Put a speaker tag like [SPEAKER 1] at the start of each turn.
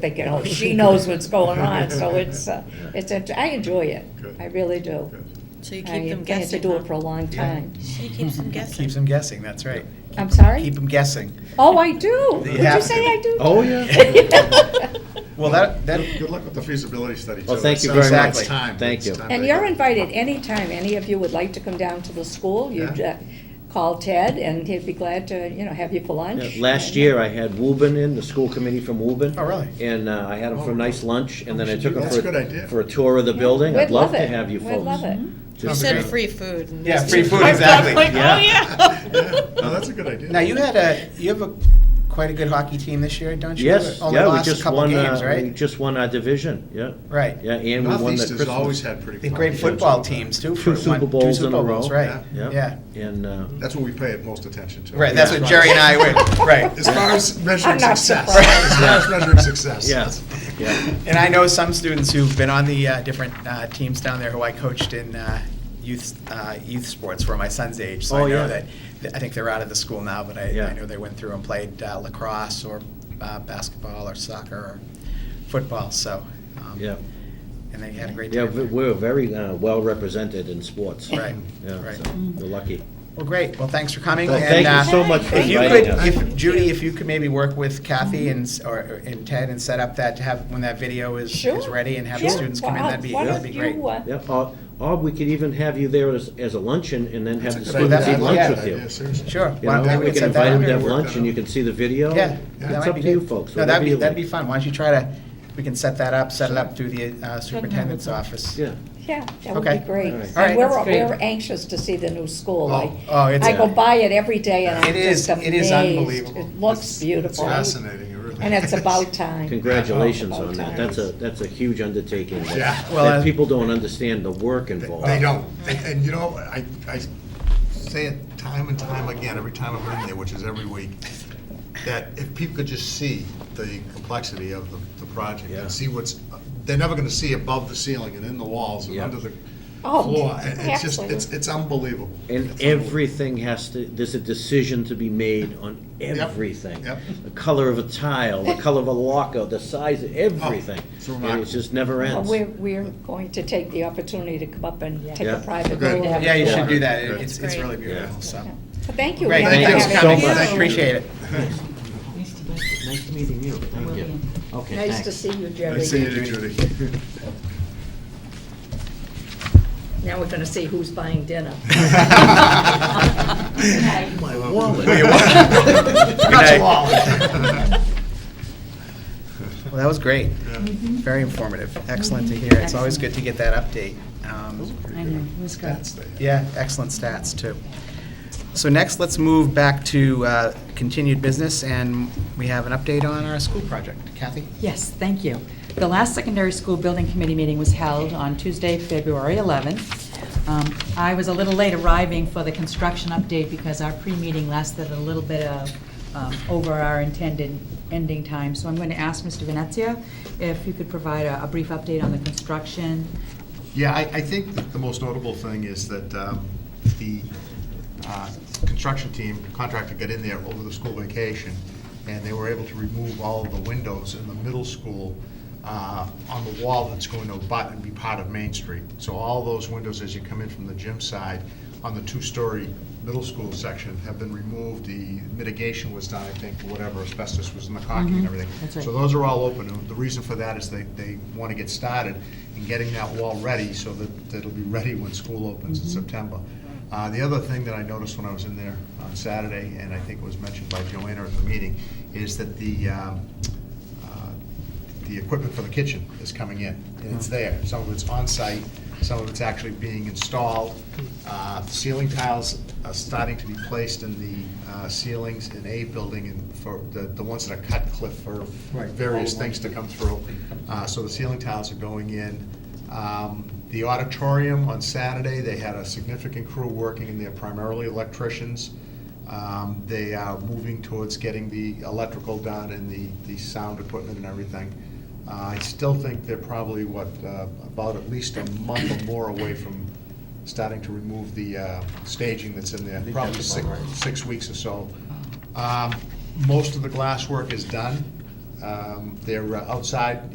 [SPEAKER 1] thinking, oh, she knows what's going on, so it's, uh,
[SPEAKER 2] Yeah.
[SPEAKER 1] it's, int- I enjoy it.
[SPEAKER 2] Good.
[SPEAKER 1] I really do.
[SPEAKER 2] Good.
[SPEAKER 3] So you
[SPEAKER 1] I
[SPEAKER 3] keep them
[SPEAKER 1] think I had to
[SPEAKER 3] guessing.
[SPEAKER 1] do
[SPEAKER 3] huh?
[SPEAKER 1] it for a long
[SPEAKER 4] Yeah.
[SPEAKER 1] time.
[SPEAKER 3] She keeps them guessing.
[SPEAKER 4] Keeps them guessing, that's right.
[SPEAKER 1] I'm sorry?
[SPEAKER 4] Keep them guessing.
[SPEAKER 1] Oh, I do.
[SPEAKER 4] You
[SPEAKER 1] Did you
[SPEAKER 4] have
[SPEAKER 1] say
[SPEAKER 4] to.
[SPEAKER 1] I do?
[SPEAKER 2] Oh, yeah.
[SPEAKER 4] Well, that, that,
[SPEAKER 2] Good good luck with the feasibility study, too.
[SPEAKER 5] Well, thank
[SPEAKER 2] It's
[SPEAKER 5] you
[SPEAKER 2] not-
[SPEAKER 4] very
[SPEAKER 2] it's
[SPEAKER 4] much.
[SPEAKER 2] time.
[SPEAKER 5] Thank
[SPEAKER 2] It's
[SPEAKER 5] you.
[SPEAKER 2] time
[SPEAKER 1] And
[SPEAKER 2] to-
[SPEAKER 1] you're invited anytime, any of you would like to come down to the school, you'd
[SPEAKER 2] Yeah.
[SPEAKER 1] uh, call Ted and he'd be glad to, you know, have you for lunch.
[SPEAKER 5] Yeah, Last year, I had Woburn in, the school committee from Woburn.
[SPEAKER 4] Oh, really? Oh.
[SPEAKER 5] And uh, I had them for a nice lunch, and then I took them
[SPEAKER 2] That's
[SPEAKER 5] for,
[SPEAKER 2] a good idea.
[SPEAKER 5] a- for a tour of the building.
[SPEAKER 1] We'd
[SPEAKER 5] I'd love to
[SPEAKER 1] it.
[SPEAKER 5] have you folks.
[SPEAKER 1] We'd love it.
[SPEAKER 3] You
[SPEAKER 4] Sounds
[SPEAKER 5] Just-
[SPEAKER 3] said
[SPEAKER 4] great.
[SPEAKER 3] free food. and-
[SPEAKER 4] yeah, free food,
[SPEAKER 3] I was like,
[SPEAKER 4] exactly.
[SPEAKER 3] oh,
[SPEAKER 2] Yeah,
[SPEAKER 3] yeah.
[SPEAKER 2] no, that's a good idea.
[SPEAKER 4] Now, you had a, you have a, quite a good hockey team this year, don't you?
[SPEAKER 5] Yes,
[SPEAKER 4] Only
[SPEAKER 5] yeah, we
[SPEAKER 4] lost a
[SPEAKER 5] just
[SPEAKER 4] couple
[SPEAKER 5] won, uh,
[SPEAKER 4] games,
[SPEAKER 5] we
[SPEAKER 4] right?
[SPEAKER 5] just won our division, yeah.
[SPEAKER 4] Right.
[SPEAKER 5] Yeah, and we won the
[SPEAKER 2] Northeast has
[SPEAKER 5] Christmas.
[SPEAKER 2] always had pretty.
[SPEAKER 4] The
[SPEAKER 2] good
[SPEAKER 4] great
[SPEAKER 2] teams.
[SPEAKER 4] football teams too.
[SPEAKER 5] Two
[SPEAKER 4] for
[SPEAKER 5] Super
[SPEAKER 4] one-
[SPEAKER 5] Bowls in a
[SPEAKER 4] Super Bowls,
[SPEAKER 5] row.
[SPEAKER 4] Right,
[SPEAKER 5] Yeah.
[SPEAKER 4] yeah.
[SPEAKER 5] And, uh,
[SPEAKER 2] That's what we pay most attention to.
[SPEAKER 4] Right, that's what Jerry and I were, right.
[SPEAKER 2] As far as measuring
[SPEAKER 1] I'm not
[SPEAKER 2] success,
[SPEAKER 1] surprised.
[SPEAKER 2] as far as measuring success.
[SPEAKER 5] yeah, yeah.
[SPEAKER 4] And I know some students who've been on the uh, different uh, teams down there who I coached in uh, youth, uh, youth sports were my son's age. So
[SPEAKER 5] Oh,
[SPEAKER 4] I know
[SPEAKER 5] yeah.
[SPEAKER 4] that, I think they're out of the school now, but I,
[SPEAKER 5] Yeah.
[SPEAKER 4] I know they went through and played uh, lacrosse or uh, basketball or soccer or football, so. um,
[SPEAKER 5] Yeah.
[SPEAKER 4] And they had a great
[SPEAKER 5] Yeah,
[SPEAKER 4] time.
[SPEAKER 5] we- we're very uh, well represented in sports.
[SPEAKER 4] Right,
[SPEAKER 5] Yeah,
[SPEAKER 4] right.
[SPEAKER 5] so We're lucky.
[SPEAKER 4] Well, great. Well, thanks for coming.
[SPEAKER 5] Well,
[SPEAKER 4] and,
[SPEAKER 5] thank
[SPEAKER 4] uh,
[SPEAKER 5] you so much for
[SPEAKER 4] If you
[SPEAKER 5] inviting us.
[SPEAKER 4] could, if, Judy, if you could maybe work with Kathy and, s- or, and Ted and set up that, to have, when that video is,
[SPEAKER 1] Sure.
[SPEAKER 4] is ready and have the
[SPEAKER 1] Sure.
[SPEAKER 4] students come in,
[SPEAKER 1] Why-
[SPEAKER 4] that'd be,
[SPEAKER 1] why
[SPEAKER 4] that'd be
[SPEAKER 1] don't
[SPEAKER 4] great.
[SPEAKER 1] you, uh,
[SPEAKER 5] Yeah, or, or we could even have you there as, as a luncheon and then have
[SPEAKER 2] That's a
[SPEAKER 5] the
[SPEAKER 2] good
[SPEAKER 5] students
[SPEAKER 2] idea.
[SPEAKER 5] eat
[SPEAKER 2] I like
[SPEAKER 5] lunch
[SPEAKER 2] that
[SPEAKER 5] with
[SPEAKER 2] idea,
[SPEAKER 5] you.
[SPEAKER 2] seriously.
[SPEAKER 4] Sure.
[SPEAKER 5] You
[SPEAKER 4] Why don't
[SPEAKER 5] know,
[SPEAKER 4] we
[SPEAKER 5] we
[SPEAKER 4] set
[SPEAKER 5] can
[SPEAKER 4] that
[SPEAKER 5] invite
[SPEAKER 4] up?
[SPEAKER 5] them to have
[SPEAKER 2] Work that
[SPEAKER 5] lunch and you
[SPEAKER 2] out.
[SPEAKER 5] can see the video.
[SPEAKER 4] Yeah. that
[SPEAKER 5] It's
[SPEAKER 4] might
[SPEAKER 5] up
[SPEAKER 4] be
[SPEAKER 5] to you
[SPEAKER 4] good.
[SPEAKER 5] folks,
[SPEAKER 4] No, that'd
[SPEAKER 5] whatever
[SPEAKER 4] be,
[SPEAKER 5] you
[SPEAKER 4] that'd be
[SPEAKER 5] like.
[SPEAKER 4] fun. Why don't you try to, we can set that up, set it up through the uh, superintendent's office.
[SPEAKER 5] Yeah.
[SPEAKER 1] Yeah, that would be
[SPEAKER 4] Okay.
[SPEAKER 1] great.
[SPEAKER 5] All right.
[SPEAKER 1] And
[SPEAKER 4] All right,
[SPEAKER 1] we're,
[SPEAKER 4] that's
[SPEAKER 1] we're anxious to see the new school. I-
[SPEAKER 4] Oh, oh, it's-
[SPEAKER 1] I go by it every day and I'm
[SPEAKER 4] It is-
[SPEAKER 1] just amazed.
[SPEAKER 4] it is unbelievable.
[SPEAKER 1] It looks
[SPEAKER 2] It's
[SPEAKER 1] beautiful.
[SPEAKER 2] fascinating, it really.
[SPEAKER 1] And it's
[SPEAKER 2] is.
[SPEAKER 1] about time.
[SPEAKER 5] Congratulations
[SPEAKER 1] About
[SPEAKER 5] on that.
[SPEAKER 1] time.
[SPEAKER 5] That's a, that's a huge undertaking. that-
[SPEAKER 2] Yeah.
[SPEAKER 4] Oh, Well,
[SPEAKER 5] That
[SPEAKER 4] I-
[SPEAKER 5] people don't understand the work
[SPEAKER 2] They
[SPEAKER 5] involved.
[SPEAKER 4] uh,
[SPEAKER 2] they don't, and, and you know, I, I say it time and time again, every time I'm in there, which is every week, that if people could just see the complexity of the, the project
[SPEAKER 5] Yeah.
[SPEAKER 2] and see what's, they're never gonna see above the ceiling and in the walls and
[SPEAKER 5] Yeah.
[SPEAKER 2] under the
[SPEAKER 1] Oh,
[SPEAKER 2] floor. And It's just,
[SPEAKER 1] absolutely.
[SPEAKER 2] it's, it's unbelievable.
[SPEAKER 5] And
[SPEAKER 2] It's
[SPEAKER 5] everything has to, there's a decision to be made on everything.
[SPEAKER 2] yep.
[SPEAKER 5] The color of a tile, the color of a locker, the size,
[SPEAKER 4] Oh,
[SPEAKER 5] of everything.
[SPEAKER 2] it's
[SPEAKER 5] And
[SPEAKER 2] remarkable.
[SPEAKER 5] it just never
[SPEAKER 1] Well,
[SPEAKER 5] ends.
[SPEAKER 1] We're, we're going to take the opportunity to come up and take a
[SPEAKER 5] Yeah.
[SPEAKER 1] private
[SPEAKER 2] Good.
[SPEAKER 1] tour.
[SPEAKER 4] Yeah, you should do that.
[SPEAKER 2] Good.
[SPEAKER 4] It- It's, it's really
[SPEAKER 5] Yeah.
[SPEAKER 4] beautiful, so.
[SPEAKER 1] So Thank you.
[SPEAKER 4] Great,
[SPEAKER 1] again
[SPEAKER 2] Thank
[SPEAKER 4] thank
[SPEAKER 1] for
[SPEAKER 4] you
[SPEAKER 2] you.
[SPEAKER 1] having
[SPEAKER 5] so
[SPEAKER 4] for coming.
[SPEAKER 1] us.
[SPEAKER 5] much.
[SPEAKER 4] I Appreciate it.
[SPEAKER 6] Nice to meet you.
[SPEAKER 5] Nice to meeting you. Thank you. Okay,
[SPEAKER 1] Nice
[SPEAKER 5] thanks.
[SPEAKER 1] to see you,
[SPEAKER 2] unbelievable.
[SPEAKER 1] Jerry.
[SPEAKER 2] Nice seeing you, Judy.
[SPEAKER 1] Now we're gonna see who's buying dinner.
[SPEAKER 5] My wallet.
[SPEAKER 4] Well, you-
[SPEAKER 2] That's
[SPEAKER 4] Good
[SPEAKER 2] all.
[SPEAKER 4] night. Well, that was great.
[SPEAKER 2] Mm-hmm.
[SPEAKER 4] Very informative. Excellent to hear. It's always good to get that update. Um,
[SPEAKER 6] I know, it was good.
[SPEAKER 2] That's the-
[SPEAKER 4] Yeah, excellent stats, too. So next, let's move back to uh, continued business, and we have an update on our school project. Kathy?
[SPEAKER 6] Yes, thank you. The last secondary school building committee meeting was held on Tuesday, February 11th. Um, I was a little late arriving for the construction update because our pre-meeting lasted a little bit of, um, over our intended ending time. So I'm going to ask Mr. Venezia if you could provide a a brief update on the construction.
[SPEAKER 2] Yeah, I, I think that the most notable thing is that um, the uh, construction team contractor got in there over the school vacation, and they were able to remove all of the windows in the middle school uh, on the wall that's going to abut and be part of Main Street. So all those windows, as you come in from the gym side, on the two-story middle school section have been removed. The mitigation was done, I think, for whatever asbestos was in the caulking and everything.
[SPEAKER 6] Mm-hmm. that's right.
[SPEAKER 2] So those are all open. And The reason for that is they, they want to get started in getting that wall ready so that that it'll be ready when school opens in
[SPEAKER 6] Mm-hmm.
[SPEAKER 2] September. Uh, The other thing that I noticed when I was in there on Saturday, and I think it was mentioned by Joanna at the meeting, is that the, um, uh, the equipment for the kitchen is coming in, and it's there. Some of it's on-site, some of it's actually being installed. Uh, Ceiling tiles are starting to be placed in the uh, ceilings in A building and for the, the ones that are cut cliff for various things to come through. Uh, So the ceiling tiles are going in. Um, The auditorium on Saturday, they had a significant crew working in there, primarily electricians. Um, They are moving towards getting the electrical done and the, the sound equipment and everything. Uh, I still think they're probably, what, uh, about at least a month or more away from starting to remove the uh, staging that's in there, probably six, six weeks or so. Um, Most of the glasswork is done. Um, They're uh, outside